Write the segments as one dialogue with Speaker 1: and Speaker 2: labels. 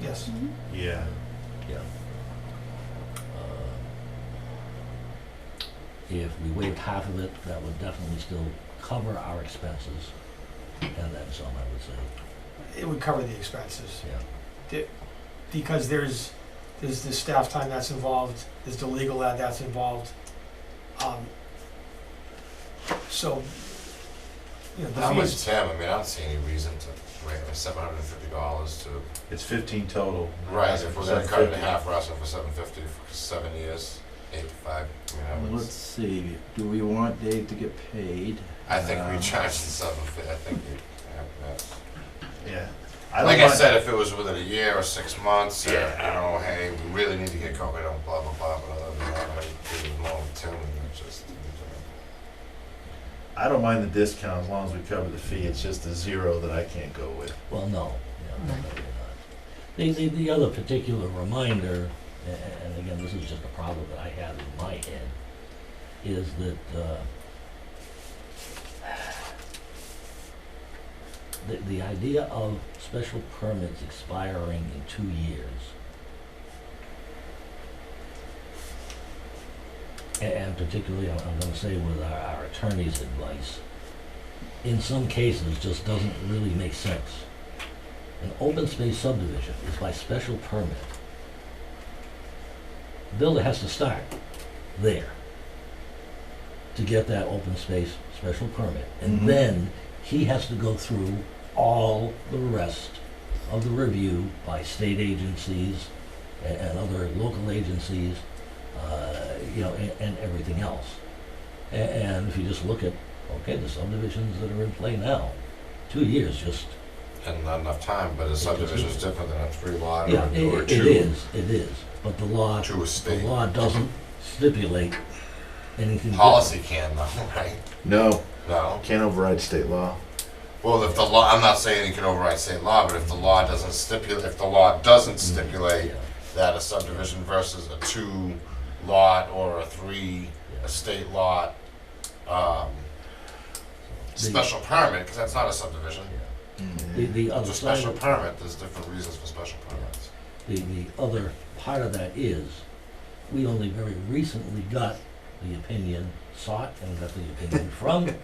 Speaker 1: Yes.
Speaker 2: Yeah.
Speaker 3: Yeah. Uh, If we waived half of it, that would definitely still cover our expenses, and then some, I would say,
Speaker 1: It would cover the expenses
Speaker 3: yeah.
Speaker 1: because there's, there's the staff time that's involved, there's the legal ad that's involved. Um, So, you know, the
Speaker 4: How much
Speaker 1: fees,
Speaker 4: Tim? I mean, I don't see any reason to wait for seven hundred and fifty dollars to
Speaker 2: It's fifteen total.
Speaker 4: rise if we're gonna cut it
Speaker 2: 750.
Speaker 4: in half, we're asking for seven fifty for seven years, eight to five. I mean, I would,
Speaker 5: Let's see, do we want Dave to get paid?
Speaker 4: I think we
Speaker 5: Um,
Speaker 4: charge the seven fifty, I think we. yeah,
Speaker 2: Yeah.
Speaker 4: yeah.
Speaker 2: don't
Speaker 4: Like I
Speaker 2: mind-
Speaker 4: said, if it was within a year or six months, or, you
Speaker 2: Yeah.
Speaker 4: know, hey, we really need to get COVID on blah, blah, blah, but other than that, I think it's more in tune than just.
Speaker 2: I don't mind the discount as long as we cover the fee. It's just the zero that I can't go with.
Speaker 3: Well, no, yeah, no,
Speaker 1: Right.
Speaker 3: maybe not. The, the, the other particular reminder, a- a- and again, this is just a problem that I have in my head, is that, uh, the, the idea of special permits expiring in two years. a- And particularly, I'm, I'm gonna say with our, our attorney's advice, in some cases, just doesn't really make sense. An open space subdivision is by special permit. The Builder has to start there to get that open space special permit.
Speaker 2: Mhm.
Speaker 3: And then he has to go through all the rest of the review by state agencies a- and other local agencies, uh, you know, a- and everything else. A- And if you just look at, okay, the subdivisions that are in play now, two years just
Speaker 4: And not enough time, but a subdivision is different than a three lot or
Speaker 3: Yeah,
Speaker 4: a- or
Speaker 3: it, it
Speaker 4: two,
Speaker 3: is, it is, but the law,
Speaker 4: two
Speaker 3: the
Speaker 4: estate.
Speaker 3: law doesn't stipulate anything.
Speaker 4: Policy can though, right?
Speaker 2: No,
Speaker 4: No.
Speaker 2: can't override state law.
Speaker 4: Well, if the law, I'm not saying it can override state law, but if the law doesn't stipulate, if the law doesn't
Speaker 3: different. Mm.
Speaker 4: stipulate
Speaker 3: Yeah,
Speaker 4: that a subdivision versus a two lot or a three
Speaker 3: yeah.
Speaker 4: estate lot, um,
Speaker 3: The-
Speaker 4: special permit, because that's not a subdivision.
Speaker 3: yeah.
Speaker 5: mm-hmm.
Speaker 3: Oh, The, the
Speaker 4: It's
Speaker 3: other
Speaker 4: a
Speaker 3: side,
Speaker 4: special
Speaker 3: of-
Speaker 4: permit, there's different reasons for special permits.
Speaker 3: the, the other part of that is, we only very recently got the opinion, sought and got the opinion from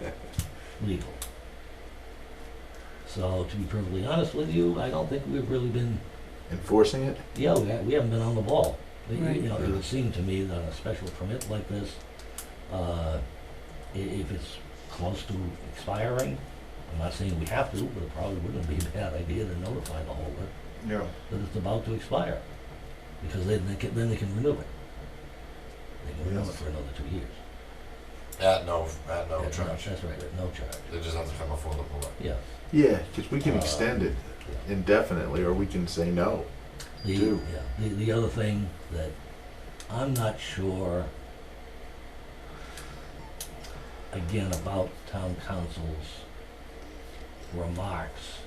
Speaker 3: legal. So to be perfectly honest with you, I don't think we've really been
Speaker 2: Enforcing it?
Speaker 3: Yeah, we, ha- we haven't been on the ball. You- you-
Speaker 6: Right.
Speaker 3: You know, it would seem to me that a special permit like this, uh, i- if it's close to expiring, I'm not saying we have to, but it probably wouldn't be a bad idea to notify the holder
Speaker 2: No.
Speaker 3: that it's about to expire. Because then they can, then they can renew it. They can renew it
Speaker 2: Yes.
Speaker 3: for another two years.
Speaker 4: At no, at no
Speaker 3: At
Speaker 4: charge.
Speaker 3: That's right, at no charge,
Speaker 4: They just have to come before the board.
Speaker 3: yeah.
Speaker 2: Yeah, because we can
Speaker 3: Uh,
Speaker 2: extend it
Speaker 3: yeah.
Speaker 2: indefinitely, or we can say no.
Speaker 3: The,
Speaker 2: Do.
Speaker 3: yeah, the, the other thing that I'm not sure, again, about town council's remarks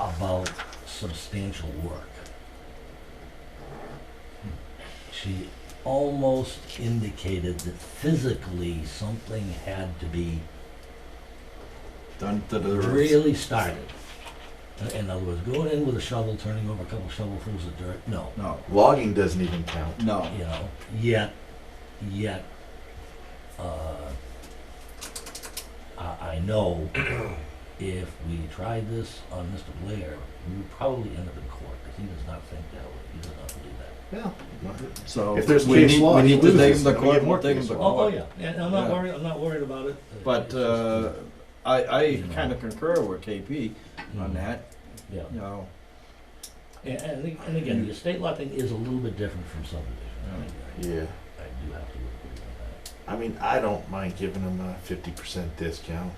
Speaker 3: about substantial work. She almost indicated that physically something had to be
Speaker 5: Done to the roof.
Speaker 3: really started. In- In other words, going in with a shovel, turning over a couple shovelfuls of dirt, no.
Speaker 5: No,
Speaker 2: Logging doesn't even count.
Speaker 5: no.
Speaker 3: you know, yet, yet, uh, I, I know if we tried this on Mr. Blair, we would probably end up in court, because he does not think that way, he does not believe that.
Speaker 2: Yeah.
Speaker 5: So
Speaker 2: If there's
Speaker 5: we
Speaker 2: case
Speaker 5: need,
Speaker 2: law,
Speaker 5: we
Speaker 2: he
Speaker 5: need to take
Speaker 2: loses,
Speaker 5: him to
Speaker 2: then we
Speaker 5: court.
Speaker 2: get more
Speaker 5: we'll take him
Speaker 2: case
Speaker 5: to
Speaker 2: law.
Speaker 3: Oh, oh,
Speaker 5: court.
Speaker 3: yeah, and I'm not
Speaker 5: Yeah.
Speaker 3: worried, I'm not worried about it. Uh,
Speaker 5: But
Speaker 3: it's just,
Speaker 5: uh, I, I
Speaker 3: You know.
Speaker 5: kind of concur with KP on
Speaker 3: mm,
Speaker 5: that.
Speaker 3: Yeah,
Speaker 5: You know,
Speaker 3: and, and ag- and again, the estate lot thing is a little bit different from subdivision, I,
Speaker 2: Yeah.
Speaker 3: I- I do have to agree with
Speaker 2: I mean, I don't mind giving them a fifty percent discount.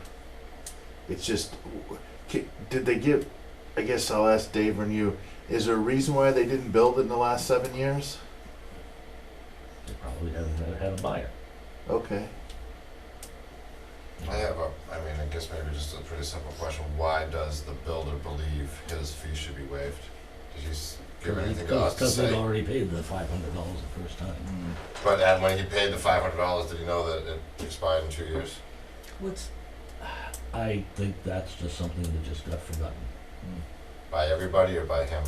Speaker 2: It's just, w- ki- did they give? I guess I'll ask Dave and you. Is there a reason why they didn't build it in the last seven years?
Speaker 3: that, they probably haven't uh, had a buyer.
Speaker 2: Okay.
Speaker 4: I have a, I mean, I guess maybe just a pretty simple question. Why does the builder believe his fee should be waived? Did he s- give anything to us to
Speaker 3: Because they'd
Speaker 4: say?
Speaker 3: already paid the five hundred dollars the first time.
Speaker 5: mm,
Speaker 4: But and when he paid the five hundred dollars, did he know that it expired in two years?
Speaker 6: What's
Speaker 3: I think that's just something that just got forgotten.
Speaker 5: mm.
Speaker 4: By everybody or by him?